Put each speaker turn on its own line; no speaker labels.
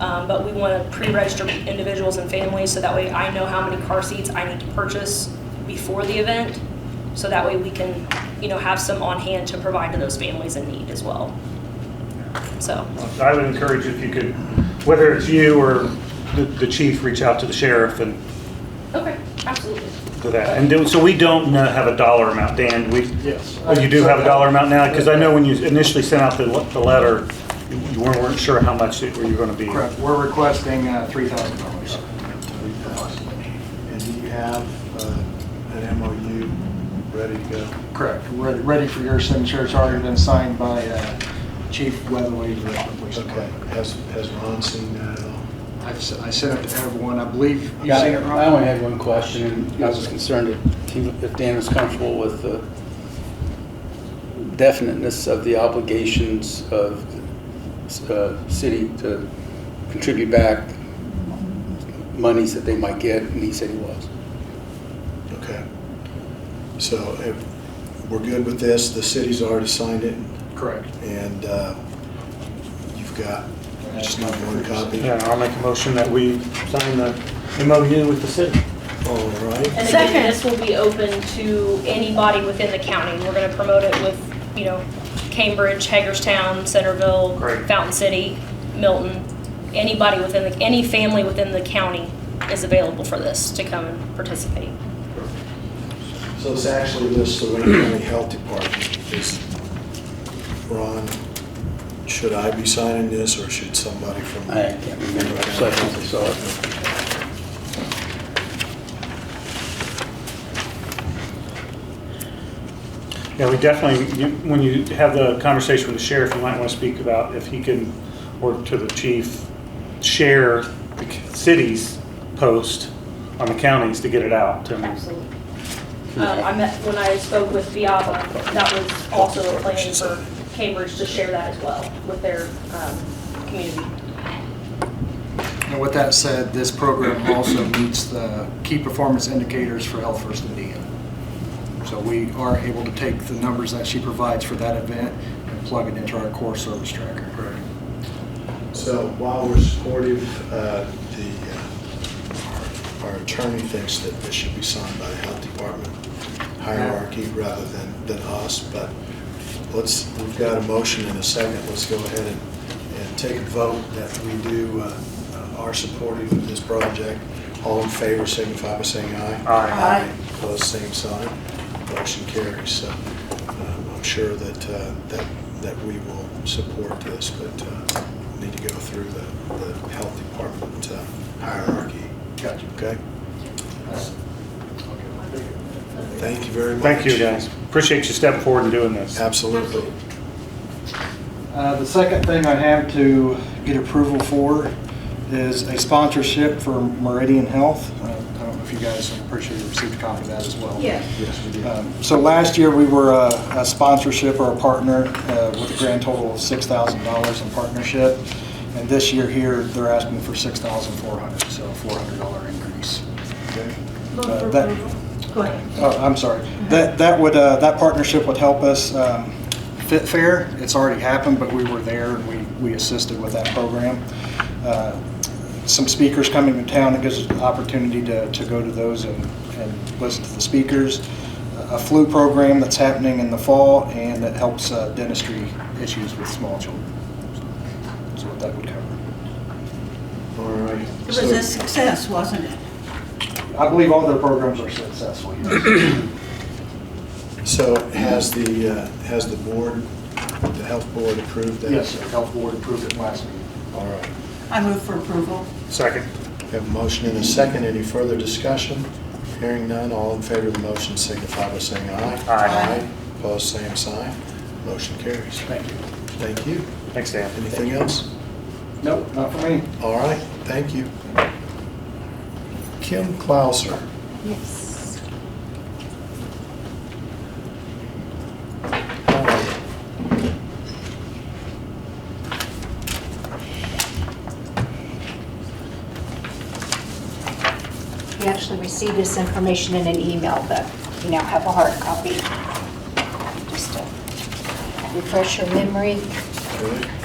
Um, but we want to pre-register individuals and families so that way I know how many car seats I need to purchase before the event. So that way we can, you know, have some on hand to provide to those families in need as well. So,
I would encourage if you could, whether it's you or the, the chief, reach out to the sheriff and
okay, absolutely.
do that. And do, so we don't uh, have a dollar amount, Dan, we,
Yes.
oh, you do have a dollar amount now? Because I know when you initially sent out the, le- the letter, you you weren't, weren't sure how much it, were you gonna be.
Correct, we're requesting uh, $3,000.
And do you have uh, an MOU ready to go?
Correct, We're ready for your signature, it's already been signed by uh, Chief Weatherly, Director of Police
Okay,
Department.
has, has Ron seen that at all?
I've s- I sent it to everyone, I believe you've
Yeah,
seen it, Ron?
I only had one question, and I was just concerned if he- if Dan was comfortable with the definiteness of the obligations of uh, city to contribute back monies that they might get, and he said he was.
Okay. So if we're good with this, the city's already signed it,
Correct.
and uh, you've got just not one copy.
Yeah, I'll make a motion that we sign the MOU with the city.
All right.
And again, this will be open to anybody within the county. We're gonna promote it with, you know, Cambridge, Hagerstown, Centerville,
Great.
Fountain City, Milton. Anybody within the, any family within the county is available for this to come and participate.
So this actually lists the Wayne County Health Department. Is, Ron, should I be signing this, or should somebody from?
I can't remember, so I think I saw it.
Yeah, we definitely, you- when you have the conversation with the sheriff, you might want to speak about if he can, or to the chief, share the c- city's post on the counties to get it out. I mean,
Absolutely. Um, I met, when I spoke with Viava, that was also a plan for Cambridge to share that as well with their, um, community.
And with that said, this program also meets the key performance indicators for Health First Indiana. So we are able to take the numbers that she provides for that event and plug it into our core service tracker.
So while we're supportive, uh, the, uh, our our attorney thinks that this should be signed by the health department hierarchy rather than, than us, but let's, we've got a motion in a second, let's go ahead and, and take a vote that we do, uh, are supportive of this project. All in favor, signify by saying aye.
Aye.
Aye. Opposed, same sign. Motion carries. So um, I'm sure that, uh, that, that we will support this, but uh, we need to go through the, the health department uh, hierarchy.
Gotcha.
Okay? Thank you very much.
Thank you, guys. Appreciate you stepping forward and doing this.
Absolutely.
Uh, The second thing I have to get approval for is a sponsorship for Meridian Health. Uh, I don't know if you guys, I'm pretty sure you received a copy of that as well.
Yeah.
Um, So last year, we were uh, a sponsorship or a partner uh, with a grand total of $6,000 in partnership. And this year here, they're asking for $6,400, so a $400 increase.
Okay.
Uh, that-
Go ahead.
Oh, I'm sorry. That, that would, uh, that partnership would help us, um, Fit Fair, it's already happened, but we were there and we, we assisted with that program. Uh, Some speakers coming to town, it gives us the opportunity to, to go to those and, and listen to the speakers. A flu program that's happening in the fall and that helps uh, dentistry issues with small children. So what that would cover.
All right.
It was
So-
a success, wasn't it?
I believe all their programs are successful, yes.
So has the, uh, has the board, the health board approved that?
Yes, sir. Health Board approved it last meeting.
All right.
I move for approval.
Second.
We have a motion and a second. Any further discussion? Hearing none, all in favor of the motion signify by saying aye.
Aye.
Opposed, same sign. Motion carries.
Thank you.
Thank you.
Thanks, Dan.
Anything else?
Nope, not for me.
All right, thank you. Kim Clauser.
Yes.
how are you?
You actually received this information in an email, but you now have a hard copy. Just to refresh your memory.
Good.